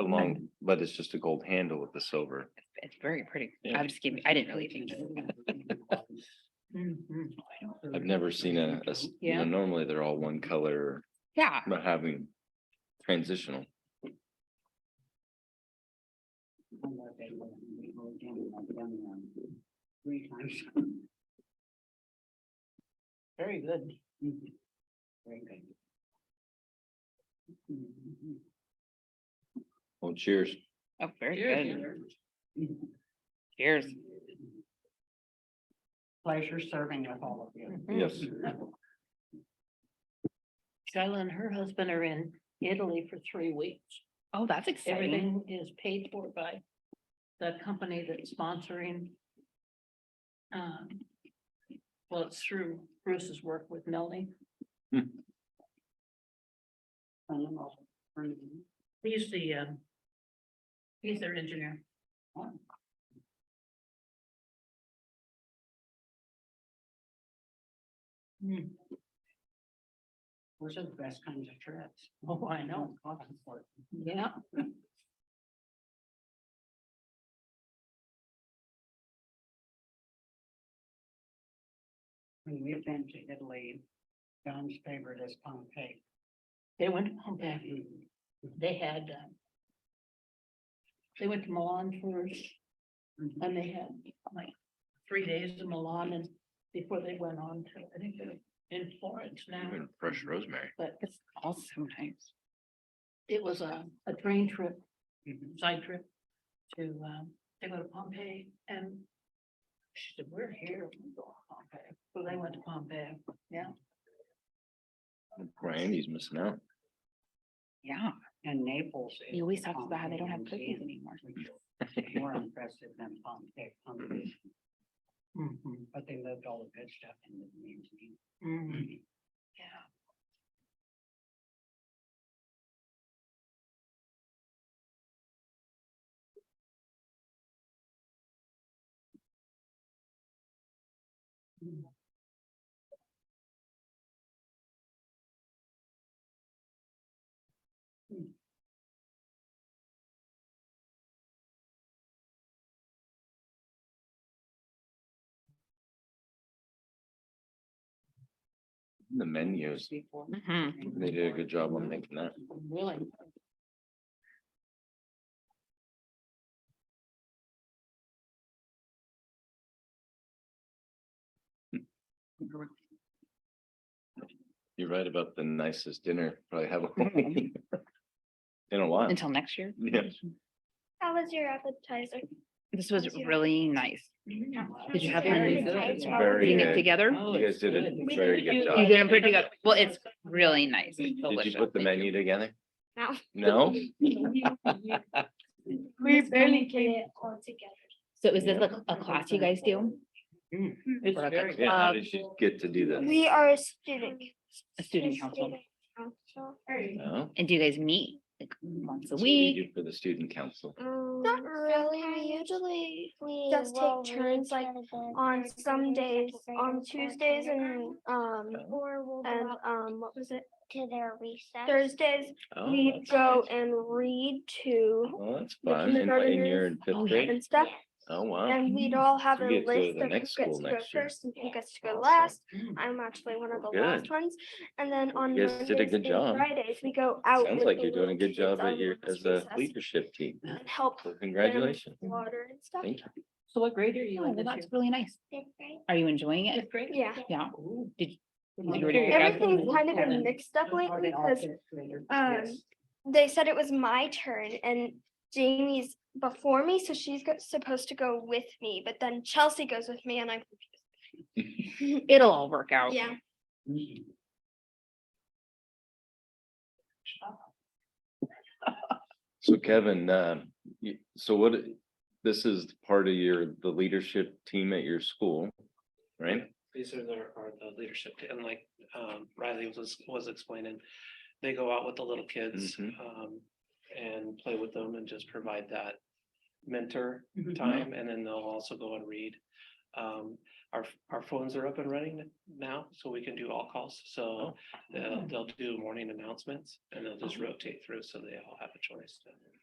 along, but it's just a gold handle with the silver. It's very pretty. Yeah. I'm just kidding. I didn't really think. that. I've never seen a, a s- you know, Yeah. normally they're all one color, Yeah, but having transitional. Very good. Very good. Well, cheers. oh, very good. Mm-hmm. Cheers. Pleasure serving with all of you. Yes. Skyla and her husband are in Italy for three weeks. Oh, that's exciting. Everything is paid for by the company that's sponsoring. Um, well, it's through Bruce's work with Melanie. He's the, um, he's their engineer. Hmm. Those are the best kinds of trips. Oh, I know. Yeah. When we've been to Italy, John's favorite is Pompeii. mm-hmm. They went to Pompeii. They had, uh, um, they went to Milan first. Mhm. And they had like three days in Milan and before they went on to, I think they're in Florence now. Mm-hmm. Even Fresh rosemary. But It's also nice. it was a, a train trip, Mhm. side trip to, um, they go to Pompeii and she said, we're here, we go to Pompeii. So they went to Pompeii. Randy's missing out. Yeah, And Naples. is he always talks about how they don't have Pompeii cookies Museum, anymore. which is More impressive than Pompeii. Pompeii. Mm-hmm. But they lived all the good stuff in the museum. Mm-hmm. Yeah. The menus, Before. Mm-hmm. Mhm. they did a good job on making that. Really. You're right about the nicest dinner probably have in a while. Until next year. Yeah. How was your appetizer? This was Thank you. really nice. Did you have one of these? It's Putting very it good. together. Oh. You guys did a very good You job. didn't put it together. Well, it's really nice. It's Did you delicious. put the Thank menu you. together? No. No? We barely get it all together. So is this like a class you guys do? It's Or like very a- Yeah, how Uh, did you get to do that? We are a student. A student council. student council. No? And do you guys meet like once a What do you week? do For the student council. Not really, we usually just take turns like on some days, on Tuesdays and, um, Or we'll and, go out um, what was it? to their recess. Thursdays, Oh, we that's go nice. and read to Well, that's the fun. And what, and you're in kindergartners. fifth Oh, yeah. grade? and stuff. Oh, wow. And we'd all have We a get to go to list the of who next gets school to go next year. first and who gets to go Awesome. last. Uh, I'm actually one of the Well, last good. ones. And then on You guys Mondays did a good and job. Fridays, we go out. Sounds with like the you're doing a little good job kids at on your, lunch as a recess leadership team. And help So them with congratulations. water and stuff. Thank you. So what grade are you Oh, in well, this that's year? really nice. Are you enjoying it? Fifth grade? Yeah, Yeah. Ooh. Did- Well, you already there you figure out go. everything's kind of been Seven. mixed up lately because um, Yes. they said it was my turn and Jamie's before me, so she's go- supposed to go with me, but then Chelsea goes with me and I'm confused. It'll all work out. Yeah, So Kevin, um, you- so what, this is part of your, the leadership team at your school, right? These are their, are the leadership, t- and like, um, Riley was, was explaining, they go out with the little kids, Mhm. um, and play with them and just provide that mentor Mhm. Mm-hmm. time, and then they'll also go and read. Um, our, our phones are up and running now, so we can do all calls, so they'll, they'll do morning announcements, and they'll just rotate through, so they all have a choice. to-